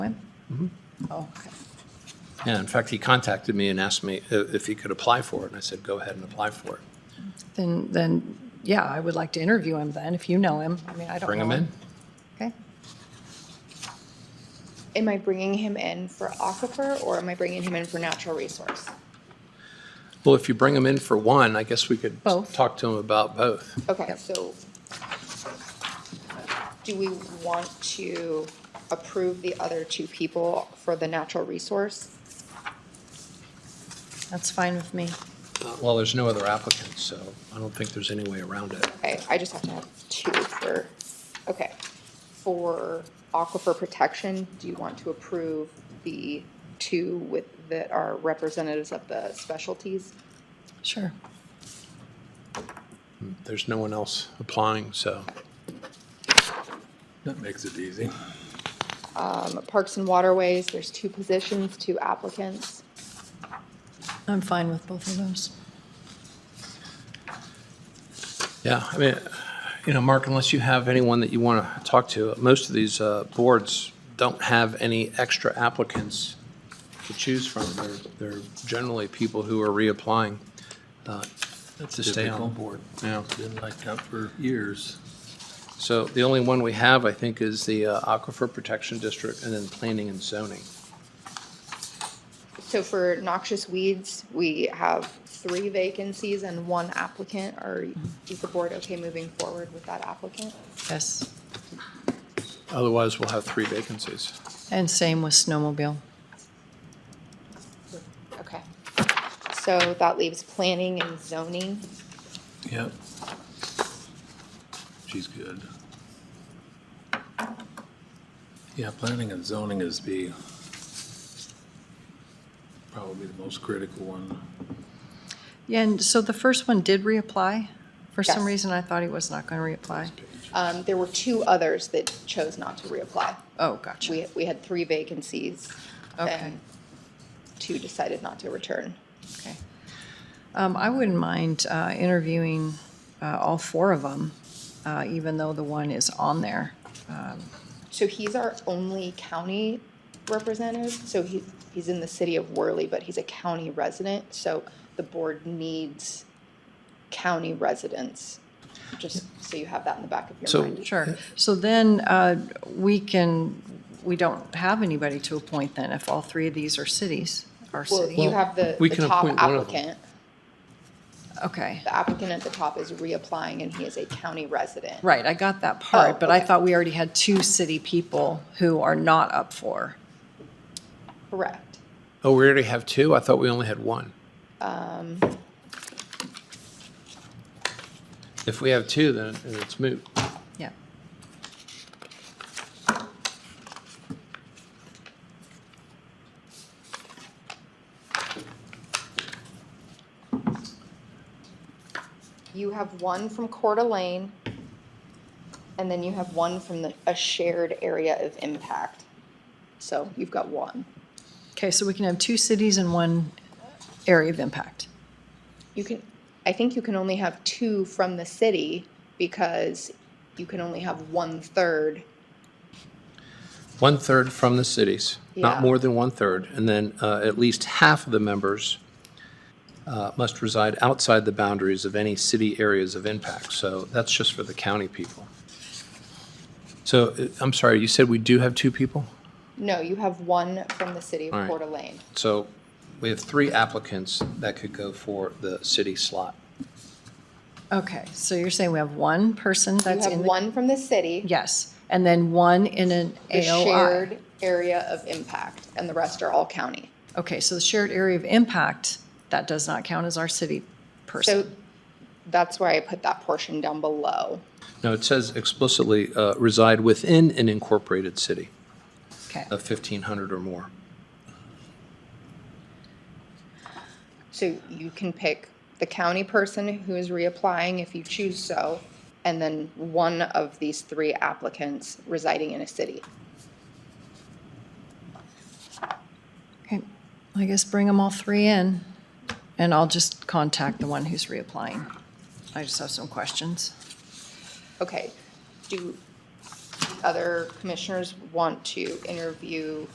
Mm-hmm. Oh, okay. Yeah, in fact, he contacted me and asked me i- if he could apply for it, and I said, go ahead and apply for it. Then, then, yeah, I would like to interview him then, if you know him. I mean, I don't know. Bring him in. Okay. Am I bringing him in for aquifer or am I bringing him in for natural resource? Well, if you bring him in for one, I guess we could Both. talk to him about both. Okay, so do we want to approve the other two people for the natural resource? That's fine with me. Uh, Well, there's no other applicants, so I don't think there's any way around it. Okay, I just have to have two for, okay. For aquifer protection, do you want to approve the two with, that are representatives of the specialties? Sure. There's no one else applying, so. That makes it easy. Parks and waterways, there's two positions, two applicants. I'm fine with both of those. Yeah, I mean, you know, Mark, unless you have anyone that you want to talk to, most of these uh, boards don't have any extra applicants to choose from. They're, they're generally people who are reapplying uh, to stay on the Typical. board. Yeah. Been like that for years. So the only one we have, I think, is the uh, Aquifer Protection District and then Planning and Zoning. So for noxious weeds, we have three vacancies and one applicant. Are, is the board okay moving forward with that applicant? Yes. Otherwise, we'll have three vacancies. And same with snowmobile. Okay. So that leaves planning and zoning. Yep. She's good. Yeah, planning and zoning is the, probably the most critical one. Yeah, and so the first one did reapply. For some Yes. reason, I thought he was not going to reapply. Um, there were two others that chose not to reapply. Oh, gotcha. We, we had three vacancies. Okay. and Two decided not to return. Okay. Um, I wouldn't mind uh, interviewing uh, all four of them, even though the one is on there. So he's our only county representative, so he, he's in the city of Worley, but he's a county resident, so the board needs county residents, just so you have that in the back of So- your mind. Sure. So then uh, we can, we don't have anybody to appoint then if all three of these are cities, our Well, you city. have the, we the can top appoint one of them. applicant, Okay. the applicant at the top is reapplying and he is a county resident. Right, I got that part, Oh, but I okay. thought we already had two city people who are not up for. Correct. Oh, we already have two? I thought we only had one. If we have two, then it's moot. Yeah. You have one from Coeur d'Alene, and then you have one from the, a shared area of impact. So you've got one. Okay, so we can have two cities and one area of impact. You can, I think you can only have two from the city because you can only have one-third. One-third from the cities, Yeah. not more than one-third, and then uh, at least half of the members uh, must reside outside the boundaries of any city areas of impact. So that's just for the county people. So, uh, I'm sorry, you said we do have two people? No, you have one from the city All of right. Coeur d'Alene. So we have three applicants that could go for the city slot. Okay, so you're saying we have one person You that's have in the, one from the city, yes, and then one in an the AOI. shared area of impact, and the rest are all county. Okay, so the shared area of impact, that does not count as our city So person. that's why I put that portion down below. No, it says explicitly uh, reside within an incorporated city Okay, of 1,500 or more. So you can pick the county person who is reapplying if you choose so, and then one of these three applicants residing in a city. okay, I guess bring them all three in, and I'll just contact the one who's reapplying. I just have some questions. Okay, do the other commissioners want to interview